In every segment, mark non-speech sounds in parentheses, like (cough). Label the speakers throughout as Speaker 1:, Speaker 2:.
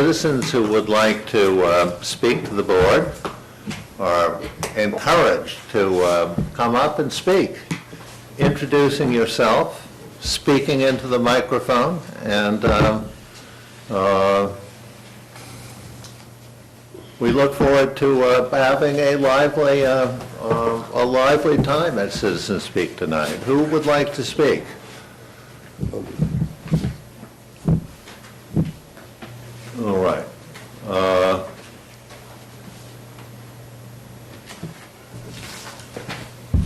Speaker 1: Citizens who would like to uh, speak to the board are encouraged to uh, come up and speak, introducing yourself, speaking into the microphone, and um, uh, we look forward to uh, having a lively, uh, uh, a lively time at Citizens Speak tonight. Who would like to speak? All right. Uh,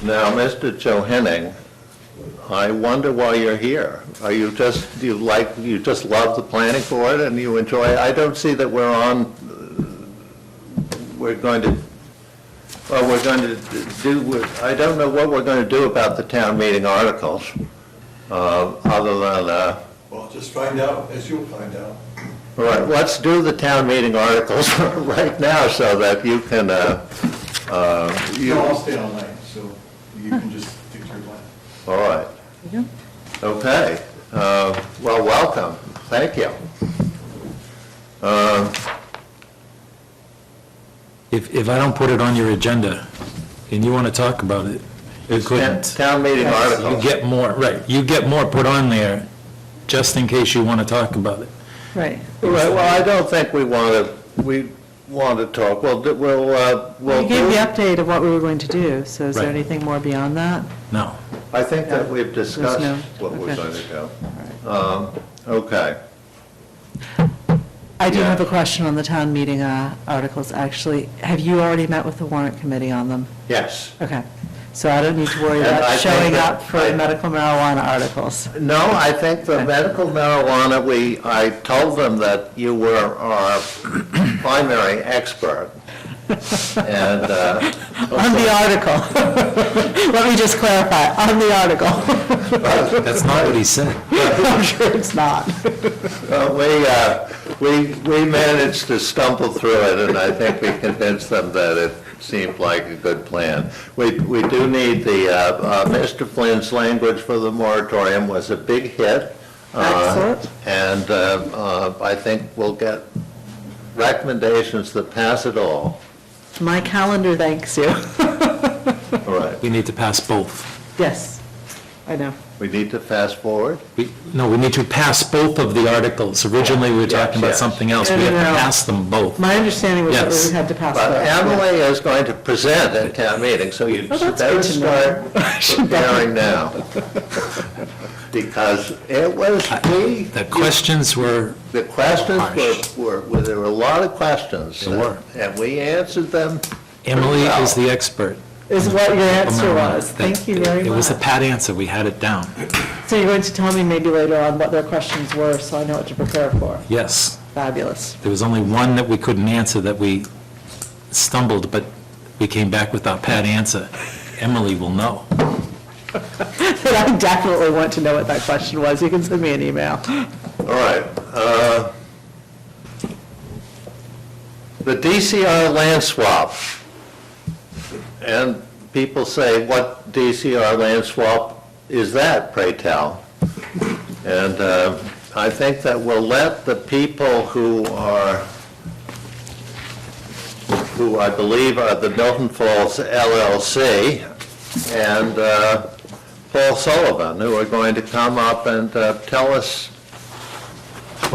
Speaker 1: Now, Mr. Johanning, I wonder why you're here. Are you just, you like, you just love the planning board and you enjoy, I don't see that we're on, uh, we're going to, well, we're going to do, I don't know what we're going to do about the town meeting articles, uh, other than, uh,
Speaker 2: Well, just find out, as you'll find out.
Speaker 1: all right, let's do the town meeting articles (laughs) right now so that you can, uh, uh, you,
Speaker 2: No, I'll
Speaker 1: all
Speaker 2: stay online, so you can just stick to your plan.
Speaker 1: right. Okay, uh, well, welcome, thank you.
Speaker 3: If, if I don't put it on your agenda and you want to talk about it, you
Speaker 1: Town
Speaker 3: couldn't.
Speaker 1: town meeting
Speaker 3: You
Speaker 1: articles,
Speaker 3: get more, right, you get more put on there just in case you want to talk about it.
Speaker 4: Right.
Speaker 1: All right, well, I don't think we want to, we want to talk, we'll, do- we'll, uh, we'll
Speaker 4: You gave the
Speaker 1: do,
Speaker 4: update of what we were going to do, so is there
Speaker 3: Right.
Speaker 4: anything more beyond that?
Speaker 3: No.
Speaker 1: I think that we've
Speaker 4: no-
Speaker 1: discussed what we're
Speaker 4: okay.
Speaker 1: going to do. Um, Okay,
Speaker 4: I do
Speaker 1: Yeah.
Speaker 4: have a question on the town meeting uh, articles, actually. Have you already met with the warrant committee on them?
Speaker 1: yes.
Speaker 4: Okay, so I don't need to worry
Speaker 1: And I
Speaker 4: about
Speaker 1: think
Speaker 4: showing
Speaker 1: that-
Speaker 4: up for
Speaker 1: I-
Speaker 4: medical marijuana
Speaker 1: (laughs)
Speaker 4: articles.
Speaker 1: No, I think the medical marijuana, we, I told them that you were our primary expert. And, uh,
Speaker 4: On the article. (laughs) Let me just clarify, on the
Speaker 1: (laughs)
Speaker 4: article.
Speaker 3: That's not what he said.
Speaker 4: (laughs) I'm sure it's not.
Speaker 1: uh, we, uh, we, we managed to stumble through it, and I think we convinced them that it seemed like a good plan. We, we do need the, uh, uh, Mr. Flynn's language for the moratorium was a big hit. uh,
Speaker 4: Excellent.
Speaker 1: And, uh, uh, I think we'll get recommendations that pass it all.
Speaker 4: My calendar thanks you.
Speaker 1: All right,
Speaker 3: We need to pass both.
Speaker 4: Yes, I know.
Speaker 1: we need to fast forward.
Speaker 3: We, no, we need to pass both of the articles. Originally, we were talking about
Speaker 1: Yes, yes.
Speaker 3: something else.
Speaker 4: No,
Speaker 3: We
Speaker 4: no,
Speaker 3: have
Speaker 4: no.
Speaker 3: to pass them both.
Speaker 4: My understanding was that
Speaker 3: Yes.
Speaker 4: we had to pass
Speaker 1: But
Speaker 4: that.
Speaker 1: Emily is going to present at town meeting, so you
Speaker 4: Oh, that's
Speaker 1: better
Speaker 4: good to
Speaker 1: start
Speaker 4: know. (laughs)
Speaker 1: preparing now. Because it was, we,
Speaker 3: The questions were,
Speaker 1: the questions
Speaker 4: Oh,
Speaker 3: Harsh.
Speaker 1: were, were, there were a lot of questions.
Speaker 3: There were.
Speaker 1: And we answered them.
Speaker 3: Emily is the expert.
Speaker 4: is what your answer
Speaker 3: Marijuana.
Speaker 4: was. Thank you very
Speaker 3: It was a
Speaker 4: much.
Speaker 3: pat answer. We had it down.
Speaker 4: So you're going to tell me maybe later on what their questions were, so I know what to prepare for.
Speaker 3: Yes.
Speaker 4: Fabulous. (laughs)
Speaker 3: There was only one that we couldn't answer that we stumbled, but we came back with our pat answer. Emily will know.
Speaker 4: But I definitely want to know what that question was. You can send me an email.
Speaker 1: All right. uh, The DCR land swap. And people say, what DCR land swap is that, pray tell? And uh, I think that we'll let the people who are, who I believe are the Milton Falls LLC and uh, Paul Sullivan, who are going to come up and uh, tell us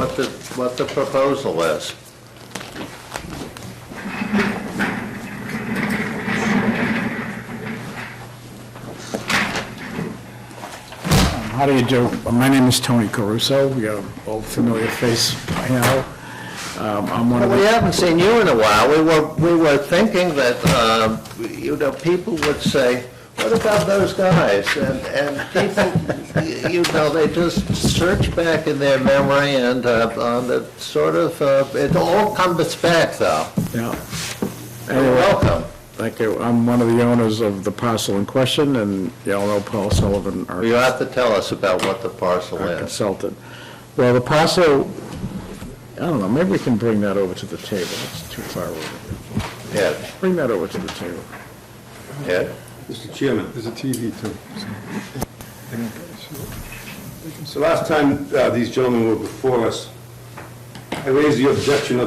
Speaker 1: what the, what the proposal is.
Speaker 5: How do you do? My name is Tony Caruso, you're an old familiar face by now. Um, I'm one of
Speaker 1: We
Speaker 5: the,
Speaker 1: haven't seen you in a while. We were, we were thinking that, um, you know, people would say, what about those guys? And, and people, you know, they just search back in their memory and uh, on the sort of, uh, it all comes back, though.
Speaker 5: yeah. Anyway,
Speaker 1: Welcome.
Speaker 5: thank you. I'm one of the owners of the parcel in question, and y'all know Paul Sullivan, our
Speaker 1: You have to tell us about what the parcel
Speaker 5: our
Speaker 1: is.
Speaker 5: consultant. Well, the parcel, I don't know, maybe we can bring that over to the table, it's too far over.
Speaker 1: Ed,
Speaker 5: Bring that over to the table.
Speaker 1: Ed?
Speaker 6: Mr. Chairman. There's a TV too. So last time uh, these gentlemen were before us, I raise the objection of